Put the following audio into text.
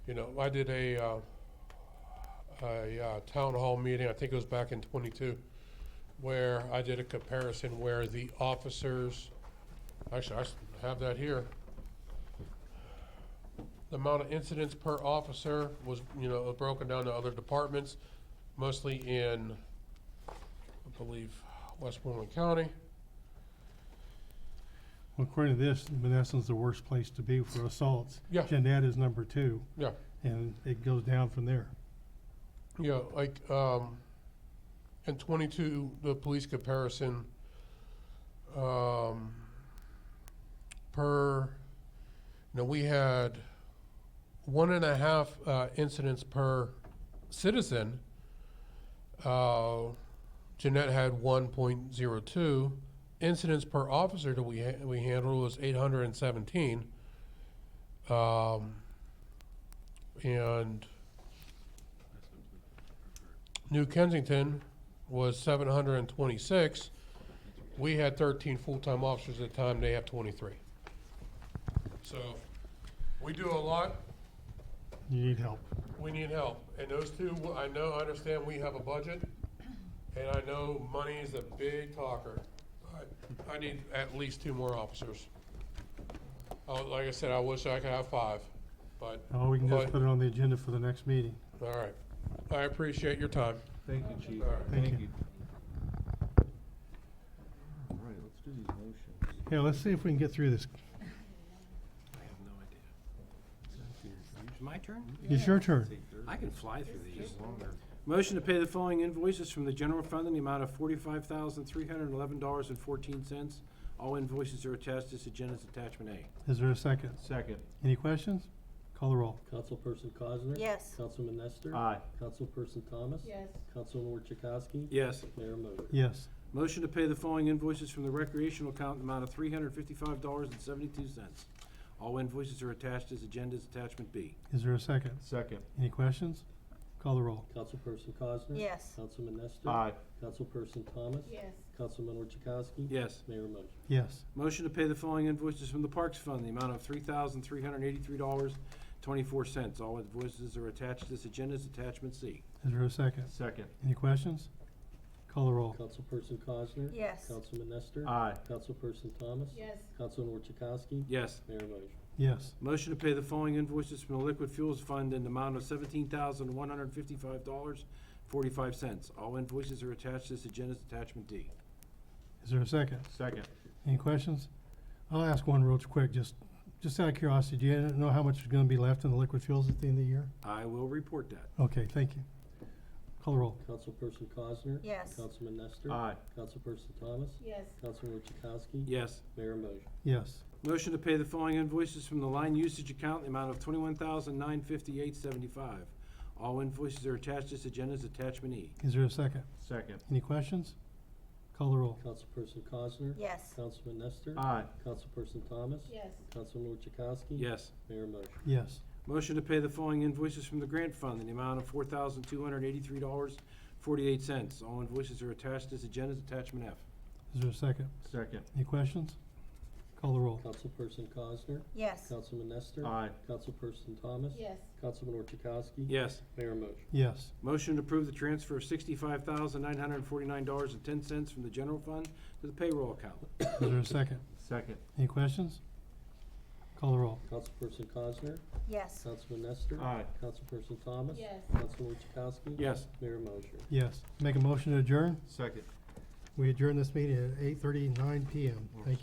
You know, I did a, uh, a uh, town hall meeting, I think it was back in twenty-two, where I did a comparison where the officers, actually, I s- have that here. The amount of incidents per officer was, you know, broken down to other departments, mostly in, I believe, Westmoreland County. Well, According to this, Menneson's the worst place to be for assaults. Yeah. Jeanette is number two. Yeah. And it goes down from there. Yeah, like, um, in twenty-two, the police comparison, um, per, you know, we had one and a half, uh, incidents per citizen. Uh, Jeanette had one point zero two. Incidents per officer that we ha- we handled was eight hundred and seventeen. Um, and New Kensington was seven hundred and twenty-six. We had thirteen full-time officers at the time, they have twenty-three. So, we do a lot, You need help. we need help, and those two, I know, I understand we have a budget, and I know money is a big talker. I, I need at least two more officers. Uh, like I said, I wish I could have five, but, Oh, we can just Right. put it on the agenda for the next meeting. all right. I appreciate your time. Thank you, Chief. All right. Thank you. All right, let's do these motions. Here, let's see if we can get through this. I have no idea. It's my turn? It's your turn. I can fly through these. Motion to pay the following invoices from the general fund in the amount of forty-five thousand, three hundred and eleven dollars and fourteen cents. All invoices are attached to this agenda's attachment A. Is there a second? Second. Any questions? Call the roll. Councilperson Cosner? Yes. Councilman Nestor? Aye. Councilperson Thomas? Yes. Councilman Orchakowski? Yes. Mayor Moser? Yes. Motion to pay the following invoices from the recreational account in the amount of three hundred and fifty-five dollars and seventy-two cents. All invoices are attached to this agenda's attachment B. Is there a second? Second. Any questions? Call the roll. Councilperson Cosner? Yes. Councilman Nestor? Aye. Councilperson Thomas? Yes. Councilman Orchakowski? Yes. Mayor Moser? Yes. Motion to pay the following invoices from the Parks Fund, the amount of three thousand three hundred eighty-three dollars, twenty-four cents. All invoices are attached to this agenda's attachment C. Is there a second? Second. Any questions? Call the roll. Councilperson Cosner? Yes. Councilman Nestor? Aye. Councilperson Thomas? Yes. Councilman Orchakowski? Yes. Mayor Moser? Yes. Motion to pay the following invoices from the Liquid Fuels Fund in the amount of seventeen thousand one hundred fifty-five dollars, forty-five cents. All invoices are attached to this agenda's attachment D. Is there a second? Second. Any questions? I'll ask one real quick, just, just out of curiosity, do you know how much is gonna be left in the liquid fuels at the end of the year? I will report that. Okay, thank you. Call the roll. Councilperson Cosner? Yes. Councilman Nestor? Aye. Councilperson Thomas? Yes. Councilman Orchakowski? Yes. Mayor Moser? Yes. Motion to pay the following invoices from the line usage account in the amount of twenty-one thousand nine fifty-eight seventy-five. All invoices are attached to this agenda's attachment E. Is there a second? Second. Any questions? Call the roll. Councilperson Cosner? Yes. Councilman Nestor? Aye. Councilperson Thomas? Yes. Councilman Orchakowski? Yes. Mayor Moser? Yes. Motion to pay the following invoices from the grant fund in the amount of four thousand two hundred eighty-three dollars, forty-eight cents. All invoices are attached to this agenda's attachment F. Is there a second? Second. Any questions? Call the roll. Councilperson Cosner? Yes. Councilman Nestor? Aye. Councilperson Thomas? Yes. Councilman Orchakowski? Yes. Mayor Moser? Yes. Motion to approve the transfer of sixty-five thousand nine hundred forty-nine dollars and ten cents from the general fund to the payroll account. Is there a second? Second. Any questions? Call the roll. Councilperson Cosner? Yes. Councilman Nestor? Aye. Councilperson Thomas? Yes. Councilman Orchakowski? Yes. Mayor Moser? Yes. Make a motion to adjourn. Second. We adjourn this meeting at eight thirty-nine PM. Thank you.